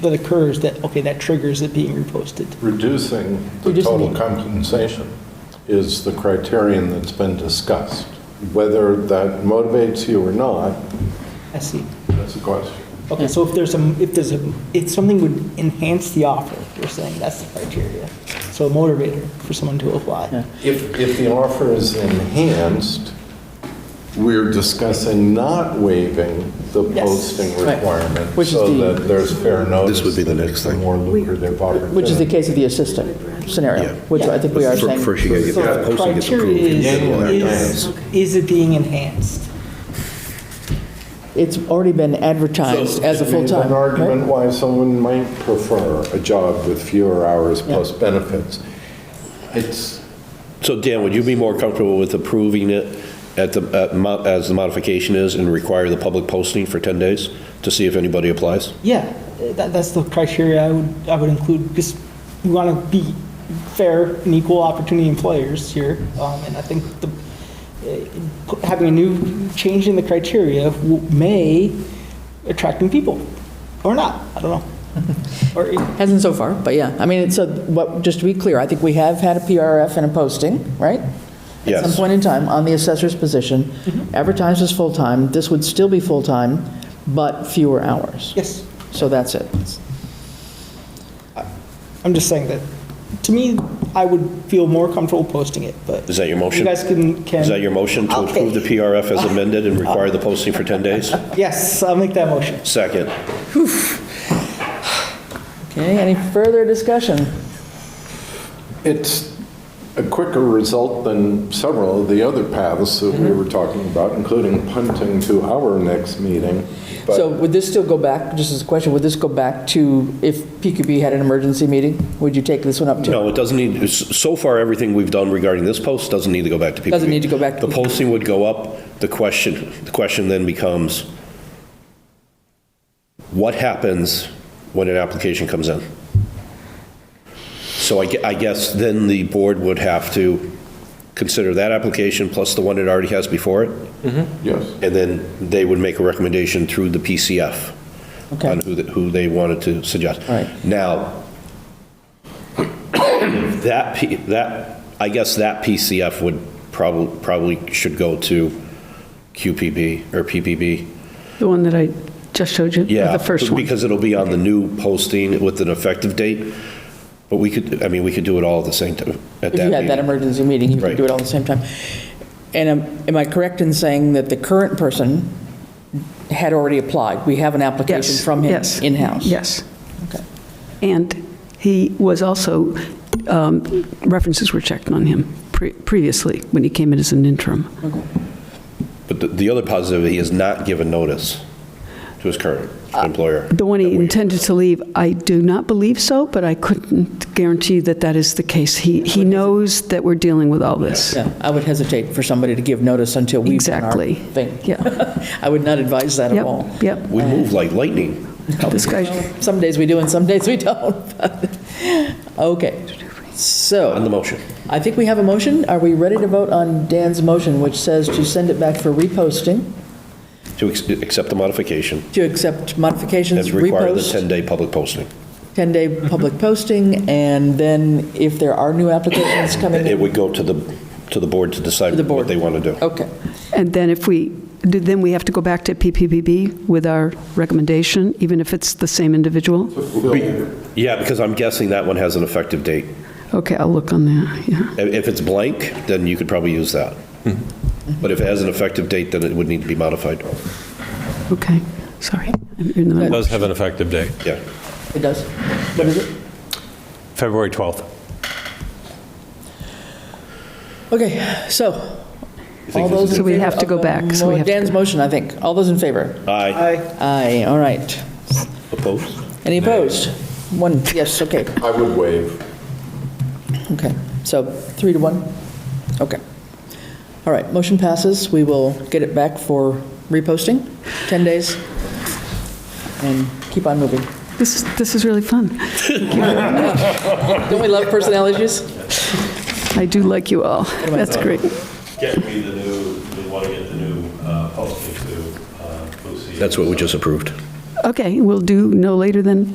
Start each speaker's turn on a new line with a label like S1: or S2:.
S1: that occurs that, okay, that triggers it being reposted.
S2: Reducing
S1: We
S2: the
S1: just
S2: total
S1: need-
S2: compensation is the criterion that's been discussed. Whether that motivates you or not,
S1: I see.
S2: that's a question.
S1: Okay, so if there's some, if there's a, if something would enhance the offer, you're saying that's the criteria. So a motivator for someone to apply.
S3: Yeah.
S2: If, if the offer is enhanced, we're discussing not waiving the
S1: Yes.
S2: posting
S3: Right.
S2: requirement
S3: Which is
S2: so
S3: the-
S2: that there's fair notice.
S4: This would be the
S2: that
S4: next
S2: it's a
S4: thing.
S2: More lucrative opportunity.
S3: Which is the case of the assistant
S4: Yeah.
S3: scenario, which I think we are
S4: Fir-
S3: saying.
S4: First, you gotta get
S1: So
S4: the
S1: the
S4: posting gets approved.
S1: criteria
S4: and then all that
S1: is, is,
S4: dies.
S1: is it being enhanced?
S3: It's already been advertised as a
S2: Made
S3: full-time.
S2: An argument
S3: right?
S2: why someone might prefer a job with fewer hours
S3: Yeah.
S2: plus benefits. It's,
S5: So Dan, would you be more comfortable with approving it at the, at mo- as the modification is and require the public posting for 10 days to see if anybody applies?
S1: Yeah, uh, that, that's the criteria I would, I would include, because we want to be fair and equal opportunity employers here. Um, and I think the, eh, pu- having a new, change in the criteria w- may attract new people, or not, I don't know. Or, it-
S3: Hasn't so far, but yeah. I mean, it's a, what, just to be clear, I think we have had a PRF and a posting, right? At some
S5: Yes.
S3: point in time, on the assessor's position,
S2: Mm-hmm.
S3: advertised as full-time. This would still be full-time, but fewer hours.
S1: yes,
S3: So that's it.
S1: I'm just saying that, to me, I would feel more comfortable posting it, but.
S5: Is that your motion?
S1: You guys can, can.
S5: Is that your motion to
S1: Okay.
S5: approve the PRF as amended and require the posting for 10 days?
S1: Yes, I'll make that motion.
S5: Second.
S3: Okay, any further discussion?
S2: it's a quicker result than several of the other paths that we were talking about, including punting to our next meeting. But
S3: So would this still go back, just as a question, would this go back to if PQB had an emergency meeting? Would you take this one up to?
S5: No, it doesn't need, s- so far, everything we've done regarding this post doesn't need to go back to PQB.
S3: Doesn't need to go back to
S5: The
S3: PQB.
S5: posting would go up, the question, the question then becomes, what happens when an application comes in? So I gue- I guess then the board would have to consider that application plus the one it already has before it,
S2: Yes.
S5: and then they would make a recommendation through the PCF
S3: Okay.
S5: on who, the- who they wanted to suggest.
S3: All right.
S5: Now, that, P- that, I guess that PCF would probably, probably should go to QPB or PPB.
S6: The one that I just showed you,
S5: Yeah.
S6: the first one.
S5: Because it'll be on the new posting with an effective date, but we could, I mean, we could do it all at the same time, at
S3: If
S5: that
S3: you had that
S5: meeting.
S3: emergency meeting, you could do it all at the same time. And um, am- am I correct in saying that the current person had already applied? We have an application
S6: Yes,
S3: from him
S6: yes,
S3: in-house?
S6: Yes.
S3: Okay.
S6: And he was also, um, references were checked on him pre- previously, when he came in as an interim.
S5: But the, the other positive, he has not given notice to his current
S3: Uh,
S5: employer.
S6: The one he
S5: that we-
S6: intended to leave, I do not believe so, but I couldn't guarantee that that is the case. He, he knows that we're dealing with all this.
S3: Yeah, I would hesitate for somebody to give notice until we've done our
S6: Exactly.
S3: thing.
S6: Yeah.
S3: I would not advise that at all.
S6: Yep, yep.
S5: We move like lightning.
S6: This guy,
S3: Well, Some days we do and some days we don't. Okay,
S5: On
S3: so
S5: the motion.
S3: I think we have a motion. Are we ready to vote on Dan's motion, which says to send it back for reposting,
S5: To ex- accept the modification
S3: to accept modifications,
S5: and require the
S3: repost,
S5: 10-day public posting. Mm-hmm.
S3: 10-day public posting, and then if there are new applications coming
S5: It
S3: in?
S5: would go to the, to the board to
S3: To
S5: decide
S3: the board. Oh.
S5: what they want to do.
S3: Okay,
S6: and then if we, then we have to go back to PPPB with our recommendation, even if it's the same individual?
S5: Yeah, because I'm guessing that one has an effective date.
S6: Okay, I'll look on that, yeah.
S5: I- If it's blank, then you could probably use that.
S3: Mm-hmm.
S5: But if it has an effective date, then it would need to be modified.
S6: Okay, sorry. I'm in the middle.
S7: Does have an effective date,
S5: Yeah.
S3: it does. What is it?
S7: February 12th.
S3: Okay, so,
S5: You
S3: all those
S5: think this
S3: in
S5: is-
S6: So we
S3: favor
S6: have to
S3: of
S6: go
S3: the
S6: back, so we
S3: mo-
S6: have to go
S3: Dan's
S6: back.
S3: motion, I think. All those in favor?
S5: Aye.
S1: I
S3: Aye, all right.
S5: Opposed?
S3: Any opposed? One, yes, okay.
S2: I would waive.
S3: Okay, so three to one? Okay. All right, motion passes. We will get it back for reposting, 10 days, and keep on moving.
S6: This, this is really fun.
S3: Don't we love personnel issues?
S6: I do like you all. That's great.
S8: get me the new, we want to get the new uh, posting to uh, Lucy.
S5: That's what we just approved.
S6: Okay, we'll do no later than